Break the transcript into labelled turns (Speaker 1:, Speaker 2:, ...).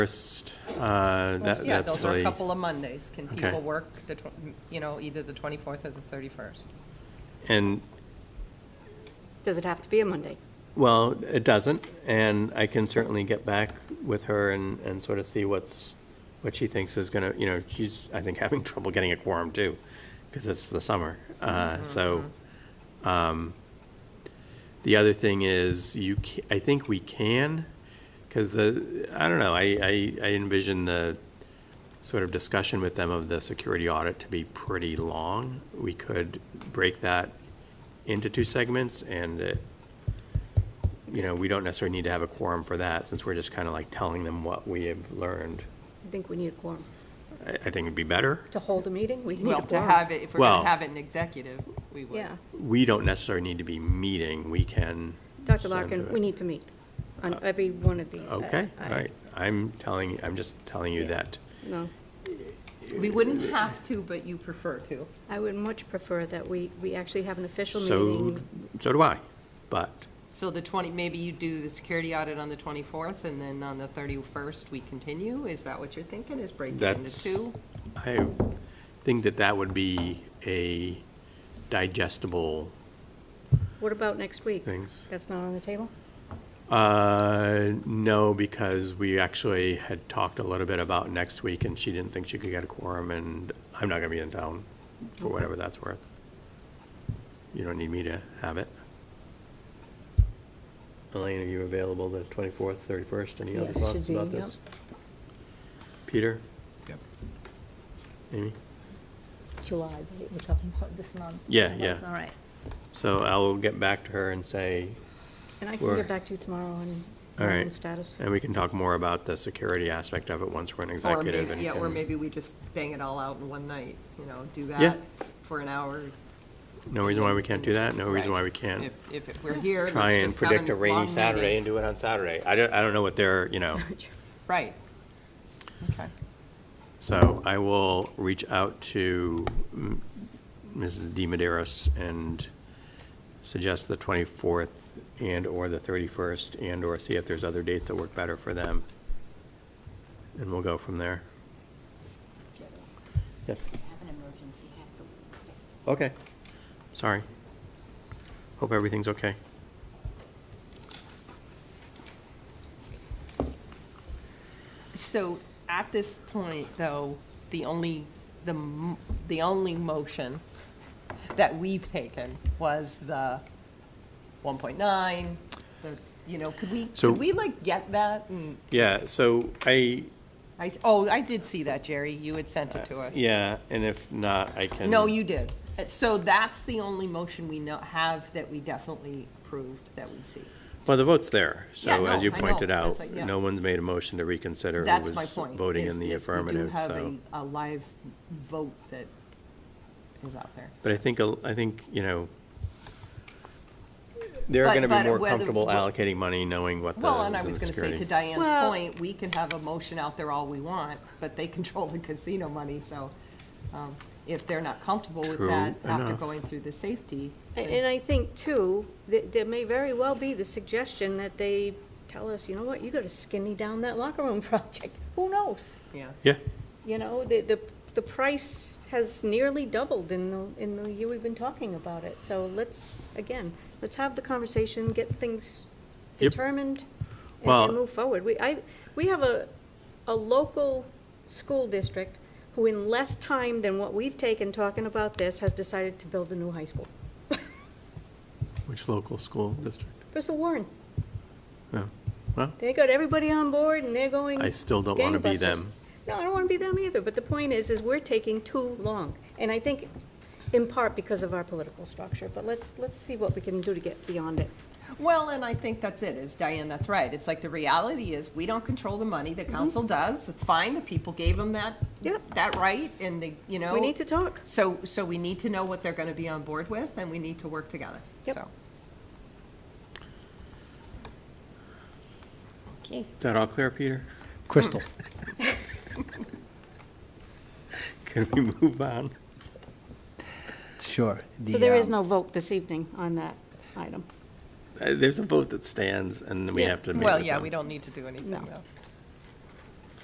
Speaker 1: first, uh, that,
Speaker 2: Yeah,
Speaker 1: that's
Speaker 2: those are a
Speaker 1: really,
Speaker 2: couple of Mondays. Can
Speaker 1: Okay.
Speaker 2: people work the, tw- you know, either the 24th or the 31st?
Speaker 1: and,
Speaker 3: Does it have to be a Monday?
Speaker 1: well, it doesn't, and I can certainly get back with her and, and sort of see what's, what she thinks is gonna, you know, she's, I think, having trouble getting a quorum too, because it's the summer, uh, so, um, the other thing is, you, ca- I think we can, because the, I don't know, I, I, I envision the sort of discussion with them of the security audit to be pretty long. We could break that into two segments and it, you know, we don't necessarily need to have a quorum for that since we're just kind of like telling them what we have learned.
Speaker 3: I think we need a quorum.
Speaker 1: I, I think it'd be better.
Speaker 3: To hold a meeting, we need a
Speaker 4: Well,
Speaker 3: quorum.
Speaker 4: to have it, if we're
Speaker 1: Well-
Speaker 4: gonna have it in executive, we would.
Speaker 3: Yeah.
Speaker 1: We don't necessarily need to be meeting, we can.
Speaker 3: Dr.
Speaker 1: send
Speaker 3: Larkin,
Speaker 1: it. Uh,
Speaker 3: we need to meet on every one of these. I-
Speaker 1: Okay,
Speaker 3: I-
Speaker 1: all right. I'm telling, I'm just telling you that.
Speaker 3: No,
Speaker 4: We wouldn't have to, but you prefer to.
Speaker 3: I would much prefer that we, we actually have an official
Speaker 1: So,
Speaker 3: meeting.
Speaker 1: so do I, but,
Speaker 4: So the twenty, maybe you do the security audit on the twenty-fourth, and then on the thirty-first, we continue? Is that what you're thinking, is break it into
Speaker 1: That's,
Speaker 4: two?
Speaker 1: I think that that would be a digestible
Speaker 3: What about next week?
Speaker 1: things.
Speaker 3: That's not on the table?
Speaker 1: Uh, no, because we actually had talked a little bit about next week and she didn't think she could get a quorum and I'm not gonna be in town for whatever that's worth. You don't need me to have it. Elaine, are you available the twenty-fourth, thirty-first? Any other
Speaker 3: Yes, should
Speaker 1: thoughts
Speaker 3: be,
Speaker 1: about
Speaker 3: yep.
Speaker 1: this? Peter?
Speaker 5: Yep.
Speaker 1: Amy?
Speaker 6: July, right? we're talking about this month.
Speaker 1: Yeah, yeah.
Speaker 6: All right.
Speaker 1: So I'll get back to her and say,
Speaker 3: And I can
Speaker 1: We're-
Speaker 3: get back to you tomorrow on
Speaker 1: all
Speaker 3: on
Speaker 1: right.
Speaker 3: status.
Speaker 1: And we can talk more about the security aspect of it once we're in
Speaker 4: Or
Speaker 1: executive.
Speaker 4: maybe,
Speaker 1: and
Speaker 4: yeah, or
Speaker 1: can-
Speaker 4: maybe we just bang it all out in one night, you know, do
Speaker 1: Yeah.
Speaker 4: that for an hour.
Speaker 1: No reason why we can't do that, no reason why we can't
Speaker 4: If, if it- we're here, let's just have
Speaker 1: try and predict a
Speaker 4: long
Speaker 1: rainy
Speaker 4: meeting.
Speaker 1: Saturday and do it on Saturday. I don't, I don't know what they're, you know,
Speaker 4: Right. Okay.
Speaker 1: so I will reach out to mm, Mrs. De Maderos and suggest the 24th and/or the 31st and/or see if there's other dates that work better for them. And we'll go from there. Yes,
Speaker 7: have an emergency, have to
Speaker 1: okay, sorry. Hope everything's okay.
Speaker 2: So at this point, though, the only, the, m- the only motion that we've taken was the 1.9, the, you know, could we,
Speaker 1: So-
Speaker 2: could we like get that? And
Speaker 1: Yeah, so I,
Speaker 2: I, s- oh, I did see that, Jerry. You had sent it to us.
Speaker 1: yeah, and if not, I can.
Speaker 2: No, you did. Uh, So that's the only motion we know, have that we definitely approved that we see.
Speaker 1: Well, the vote's there,
Speaker 4: Yeah,
Speaker 1: so
Speaker 4: no,
Speaker 1: as you
Speaker 4: I know.
Speaker 1: pointed out,
Speaker 4: That's what- yeah.
Speaker 1: no one's made a motion to reconsider who
Speaker 4: That's my
Speaker 1: was
Speaker 4: point.
Speaker 1: voting
Speaker 4: is-
Speaker 1: in the
Speaker 4: is we do
Speaker 1: affirmative,
Speaker 4: have
Speaker 1: so.
Speaker 4: a- A live vote that is out there.
Speaker 1: But I think, a- I think, you know, they're
Speaker 4: But-
Speaker 1: gonna be
Speaker 4: but
Speaker 1: more
Speaker 4: whether-
Speaker 1: comfortable
Speaker 4: what-
Speaker 1: allocating money knowing what the.
Speaker 4: Well, and I
Speaker 1: is in
Speaker 4: was
Speaker 1: the
Speaker 4: gonna say,
Speaker 1: security.
Speaker 4: to Diane's
Speaker 3: Well-
Speaker 4: point, we can have a motion out there all we want, but they control the casino money, so um, if they're not comfortable with
Speaker 1: True
Speaker 4: that after
Speaker 1: enough.
Speaker 4: going through the safety,
Speaker 3: And
Speaker 4: then-
Speaker 3: and I think, too, that there may very well be the suggestion that they tell us, you know what, you gotta skinny down that locker room project. Who knows?
Speaker 4: yeah.
Speaker 1: Yeah,
Speaker 3: You know, the, the, the price has nearly doubled in the, in the year we've been talking about it. So let's, again, let's have the conversation, get things
Speaker 1: Yep.
Speaker 3: determined and-
Speaker 1: Well-
Speaker 3: and move forward. We, I, we have a, a local school district who in less time than what we've taken talking about this has decided to build a new high school.
Speaker 1: which local school district?
Speaker 3: Bristol Warren,
Speaker 1: Yeah, well,
Speaker 3: they got everybody on board and they're going
Speaker 1: I still don't wanna be
Speaker 3: gangbusters.
Speaker 1: them.
Speaker 3: No, I don't want to be them either, but the point is, is we're taking too long. And I think in part because of our political structure, but let's, let's see what we can do to get beyond it.
Speaker 4: Well, and I think that's it, is Diane, that's right. It's like the reality is, we don't control the money,
Speaker 3: Mm-hmm.
Speaker 4: the council does. It's fine, the people gave them that,
Speaker 3: Yep.
Speaker 4: that right, and they, you know.
Speaker 3: We need to talk.
Speaker 4: So, so we need to know what they're gonna be on board with, and we need to work together,
Speaker 3: Yep.
Speaker 4: so.
Speaker 2: Okay.
Speaker 1: is that all clear, Peter?
Speaker 5: Crystal.
Speaker 1: Can we move on?
Speaker 5: Sure.
Speaker 3: So there is
Speaker 1: um,
Speaker 3: no vote this evening on that item.
Speaker 1: Uh, There's a vote that stands and we
Speaker 3: Yeah.
Speaker 1: have to make
Speaker 4: Well,
Speaker 1: it
Speaker 4: yeah,
Speaker 1: done.
Speaker 4: we don't need to do anything,
Speaker 3: No.
Speaker 4: though.